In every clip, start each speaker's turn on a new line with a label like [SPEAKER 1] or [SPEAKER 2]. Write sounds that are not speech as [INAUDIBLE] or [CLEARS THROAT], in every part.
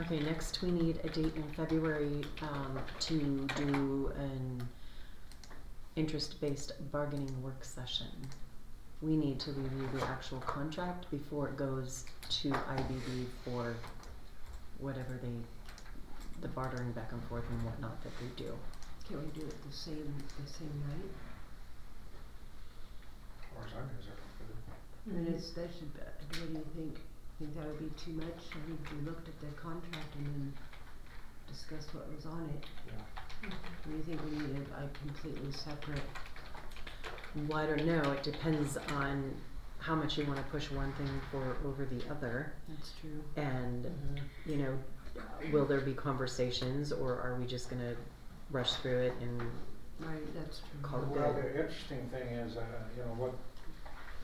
[SPEAKER 1] Okay, next we need a date in February, um, to do an interest-based bargaining work session. We need to review the actual contract before it goes to IBB for whatever they, the bartering back and forth and whatnot that they do.
[SPEAKER 2] Can we do it the same, the same night?
[SPEAKER 3] As far as I'm concerned, I'm good.
[SPEAKER 2] And it's, that should, be- what do you think? Think that would be too much? I think we looked at the contract and then discussed what was on it.
[SPEAKER 3] yeah.
[SPEAKER 2] Do you think we need it like completely separate?
[SPEAKER 1] Well, I don't know, it depends on how much you wanna push one thing for over the other,
[SPEAKER 2] That's true.
[SPEAKER 1] and you know, will there be conversations or are we just gonna rush through it and
[SPEAKER 2] Right, that's true.
[SPEAKER 1] Call it
[SPEAKER 3] Well,
[SPEAKER 1] good.
[SPEAKER 3] the interesting thing is, uh, you know, what,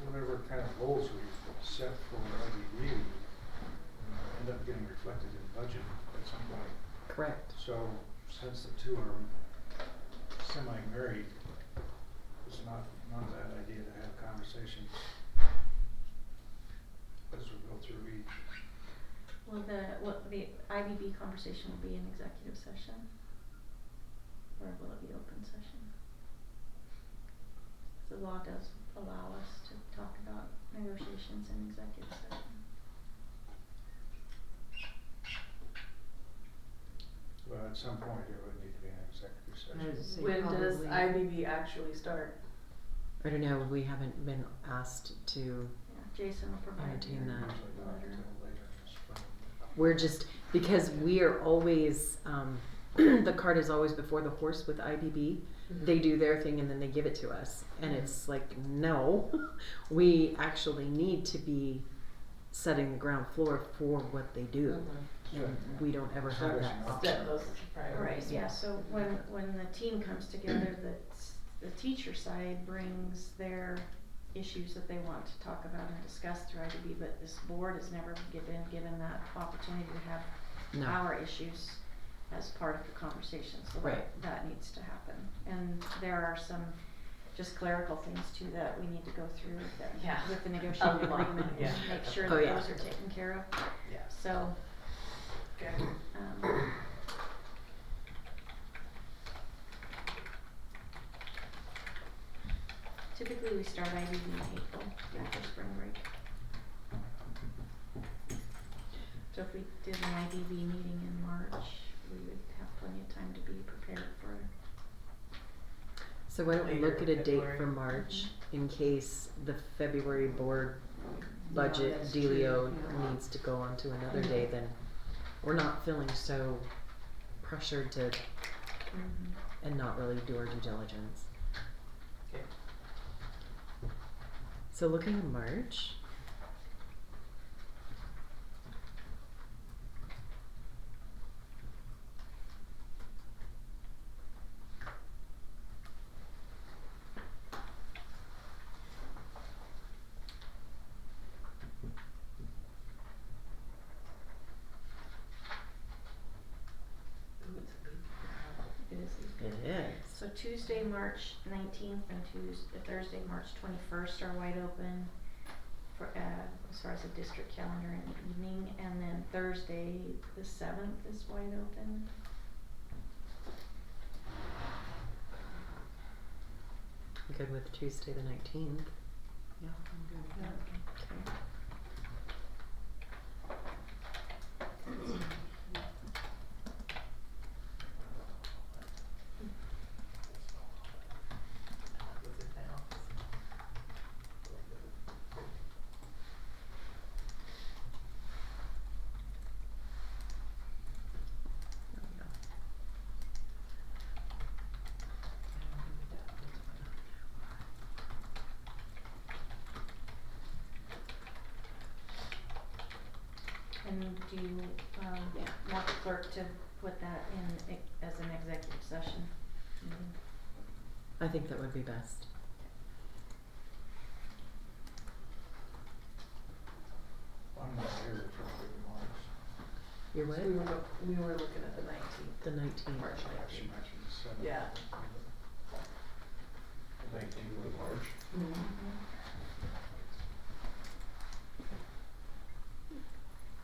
[SPEAKER 3] whatever kind of goals we set for IDD, you know, uh, end up getting reflected in budget at some point.
[SPEAKER 1] correct?
[SPEAKER 3] So since the two are semi-married, it's not, not a bad idea to have conversations as we go through each.
[SPEAKER 4] Well, the, what, the IBB conversation will be an executive session? Or will it be open session? The law does allow us to talk about negotiations in executive session.
[SPEAKER 3] Well, at some point, it would need to be an executive
[SPEAKER 2] I would
[SPEAKER 3] session.
[SPEAKER 2] say
[SPEAKER 5] When does
[SPEAKER 2] probably-
[SPEAKER 5] IBB actually start?
[SPEAKER 1] I don't know, we haven't been asked to,
[SPEAKER 4] Yeah, Jason will provide you
[SPEAKER 1] Entertain that.
[SPEAKER 3] Usually
[SPEAKER 4] a
[SPEAKER 3] not
[SPEAKER 4] letter.
[SPEAKER 3] until later in the spring.
[SPEAKER 1] we're just, because we are always, um, [CLEARS THROAT] the cart is always before the horse with IBB.
[SPEAKER 5] Mm-hmm.
[SPEAKER 1] Mm-hmm. They do their thing and then they give it to us. And it's like, no, [LAUGHS] we actually need to be setting the ground floor for what they do. And
[SPEAKER 3] Mm-hmm.
[SPEAKER 1] we don't ever
[SPEAKER 3] So
[SPEAKER 1] have
[SPEAKER 3] there's
[SPEAKER 1] that
[SPEAKER 3] an
[SPEAKER 1] option.
[SPEAKER 5] Set those
[SPEAKER 4] Right,
[SPEAKER 5] priorities.
[SPEAKER 4] yeah, so when, when the team comes together, the, the teacher side brings their issues that they want to talk about and discuss through IDB, but this board has never given, given that opportunity to have
[SPEAKER 1] No.
[SPEAKER 4] our issues as part of the conversation, so that,
[SPEAKER 1] Right.
[SPEAKER 4] that needs to happen. And there are some just clerical things too that we need to go through with
[SPEAKER 5] Yeah.
[SPEAKER 4] the, with the negotiating
[SPEAKER 5] lot,
[SPEAKER 4] agreement,
[SPEAKER 5] yeah.
[SPEAKER 4] and make sure
[SPEAKER 1] Oh,
[SPEAKER 4] that
[SPEAKER 1] yeah.
[SPEAKER 4] those are taken care of,
[SPEAKER 5] Yeah.
[SPEAKER 4] so,
[SPEAKER 5] Good.
[SPEAKER 4] um, typically we start IDB in April, after spring break. So if we did an IDB meeting in March, we would have plenty of time to be prepared for
[SPEAKER 1] So why don't we look at
[SPEAKER 5] Later
[SPEAKER 1] a
[SPEAKER 5] in
[SPEAKER 1] date
[SPEAKER 5] February.
[SPEAKER 1] for March in case the February board budget
[SPEAKER 2] that's true,
[SPEAKER 1] dealio
[SPEAKER 2] yeah.
[SPEAKER 1] needs to go on to another day, then we're not feeling so pressured to, and not really do our due diligence.
[SPEAKER 5] Okay.
[SPEAKER 1] So looking at March,
[SPEAKER 5] Ooh, it's a good- uh,
[SPEAKER 4] it. It is these
[SPEAKER 1] it is.
[SPEAKER 4] So Tuesday, March nineteenth and Tuesday, Thursday, March twenty-first are wide open for, uh, as far as the district calendar in the evening, and then Thursday, the seventh is wide open.
[SPEAKER 1] Good with Tuesday the nineteenth.
[SPEAKER 2] Yeah, I'm good with that.
[SPEAKER 4] Okay.
[SPEAKER 5] What's it now? I don't know what that is.
[SPEAKER 4] And do you, um, want the clerk to put that in ex- as an executive session? meeting?
[SPEAKER 1] I think that would be best.
[SPEAKER 3] I'm not here for the big marks.
[SPEAKER 1] Your what?
[SPEAKER 5] So We were, look- we were looking at the nineteenth,
[SPEAKER 1] The nineteenth.
[SPEAKER 5] March
[SPEAKER 3] She
[SPEAKER 5] nineteenth.
[SPEAKER 3] mentioned the seventh.
[SPEAKER 5] Yeah.
[SPEAKER 3] Thank you, Lord March.
[SPEAKER 1] Mm-hmm.
[SPEAKER 5] Mhm.
[SPEAKER 4] Mhm.